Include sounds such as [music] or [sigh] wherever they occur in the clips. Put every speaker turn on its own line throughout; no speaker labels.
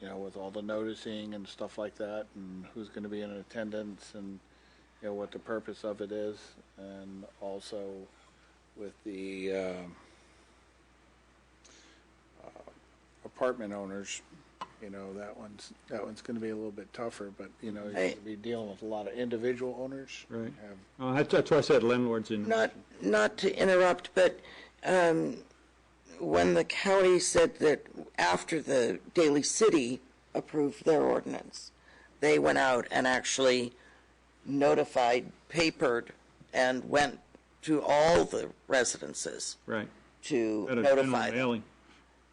you know, with all the noticing and stuff like that, and who's going to be in attendance, and, you know, what the purpose of it is, and also with the um, uh, apartment owners, you know, that one's, that one's going to be a little bit tougher, but, you know, you're going to
Hey.
be dealing with a lot of individual owners.
Right.
Have
Uh, that's, that's why I said landlords in.
Not, not to interrupt, but um, when the county said that after the Daly City approved their ordinance, they went out and actually notified, papered, and went to all the residences
Right.
to
Had a general
notify them.
mailing.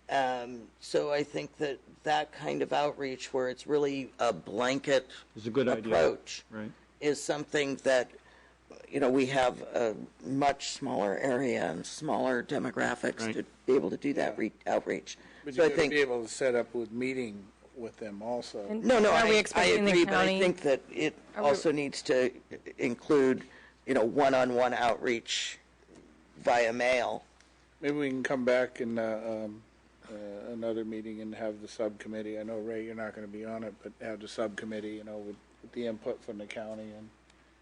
Um, So I think that that kind of outreach, where it's really a blanket
It's a good idea.
approach,
Right.
is something that, you know, we have a much smaller area and smaller demographics
Right.
to be able to do that re- outreach.
But
So I
you're going to be
think,
able to set up with meeting with them also.
And-
no, no,
Are we
I, I
expecting the
agree, but I
county-
think that it
Are we-
also needs to include, you know, one-on-one outreach via mail.
Maybe we can come back in uh, um, uh, another meeting and have the subcommittee. I know, Ray, you're not going to be on it, but have the subcommittee, you know, with with the input from the county and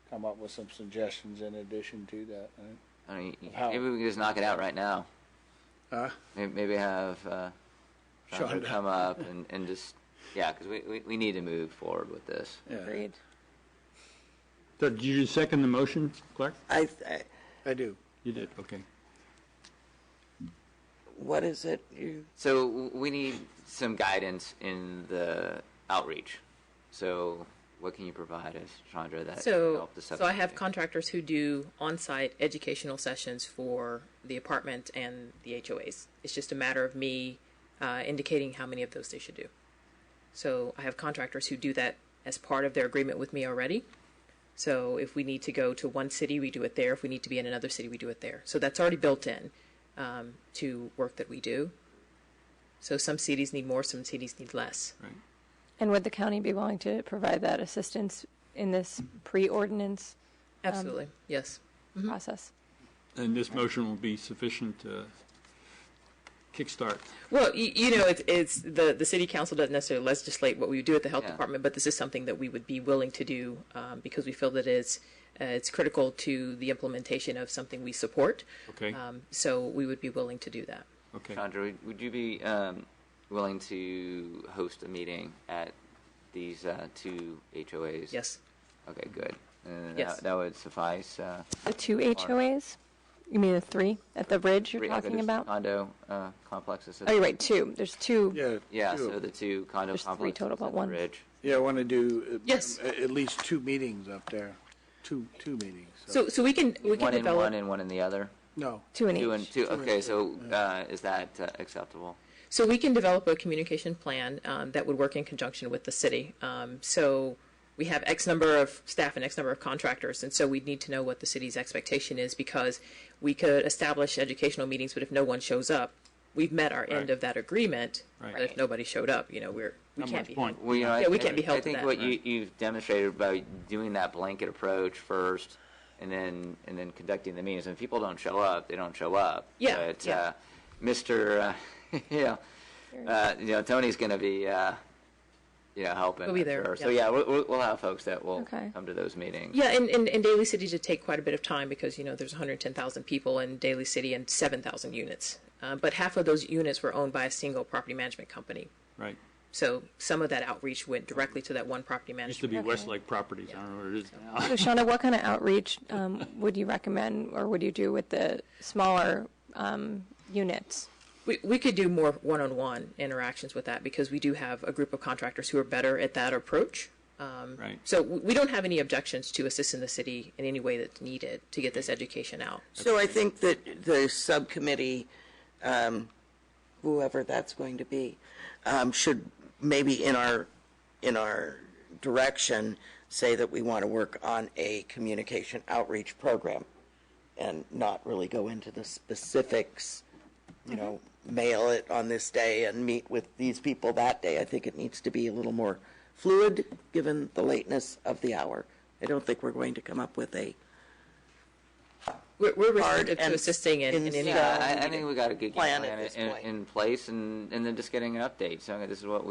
come up with some suggestions in addition to that. right?
I mean, y-
How-
maybe we can just knock it out right now.
Huh?
Maybe, maybe have uh, Chandra
Shonda.
come up and, and just yeah, because we, we, we need to move forward with this.
Yeah,
Agreed.
So did you second the motion, Clark?
I, I-
I do.
You did, okay.
what is it you?
So w- we need some guidance in the outreach. So what can you provide us, Chandra? That can
So,
help the
so I have
subcommittee?
contractors who do on-site educational sessions for the apartment and the HOAs. It's just a matter of me uh, indicating how many of those they should do. So I have contractors who do that as part of their agreement with me already. So if we need to go to one city, we do it there. If we need to be in another city, we do it there. So that's already built in um, to work that we do. So some cities need more, some cities need less.
And would the county be willing to provide that assistance in this pre-ordinance
Absolutely, yes.
Mm-hmm.
process?
And this motion will be sufficient to kickstart.
Well, you, you know, it's, it's the, the city council doesn't necessarily legislate what we would do at the health
Yeah.
department, but this is something that we would be willing to do um, because we feel that it's uh, it's critical to the implementation of something we support.
Okay.
Um, so we would be willing to do that.
Okay.
Chandra, would, would you be um, willing to host a meeting at these uh, two HOAs?
Yes.
Okay, good. And
Yes.
that, that would suffice. Uh,
The two HOAs? You mean the three at the bridge you're
three- okay,
talking
there's
about?
condo uh, complexes.
Oh, you're right, two. There's two.
Yeah.
Yeah,
two
so
of-
the two condo
There's three
complexes
total, but
at the
one-
Ridge.
Yeah, I want to do. uh,
Yes.
At at least two meetings up there, two, two meetings.
So so we can we can
One in
develop
one and one in the other?
No.
Two in
Two and
each.
two, okay, so uh, is that uh, acceptable?
So we can develop a communication plan um, that would work in conjunction with the city. Um, so we have X number of staff and X number of contractors, and so we'd need to know what the city's expectation is because we could establish educational meetings, but if no one shows up, we've met our end of that agreement.
Right.
But if nobody showed up, you know, we're we can't
much
be
point.
Well, you know, I
Yeah, we
think-
can't be held
I
to
think
that.
what you, you've demonstrated by doing that blanket approach first, and then, and then conducting the meetings, and if people don't show up, they don't show up.
Yeah,
But,
yeah.
uh, Mr., uh, [laughs] you know, uh, you know, Tony's gonna be, uh, you know, helping.
He'll be
I'm
there,
sure. So,
yeah.
yeah, we'll- we'll, we'll have folks that will
Okay.
come to those meetings.
Yeah, and, and, and Daly City did take quite a bit of time because, you know, there's 110,000 people in Daly City and 7,000 units. Um, but half of those units were owned by a single property management company.
Right.
So some of that outreach went directly to that one property
Used to
management.
be Westlake Properties. I don't know what it is now.
So Shauna, what kind of outreach um, would you recommend or would you do with the smaller um, units?
We, we could do more one-on-one interactions with that because we do have a group of contractors who are better at that approach. Um,
Right.
So we we don't have any objections to assisting the city in any way that's needed to get this education out.
So I think that the subcommittee, um, whoever that's going to be, um, should maybe in our, in our direction, say that we want to work on a communication outreach program and not really go into the specifics, you know, mail it on this day and meet with these people that day. I think it needs to be a little more fluid, given the lateness of the hour. I don't think we're going to come up with a
We're, we're
Hard
receptive
and
to assisting in, in any
Yeah.
way.
I, I think we got a good game
um, Plan at
plan
this
in,
point.
in place, and, and then just getting an update. So this is what we.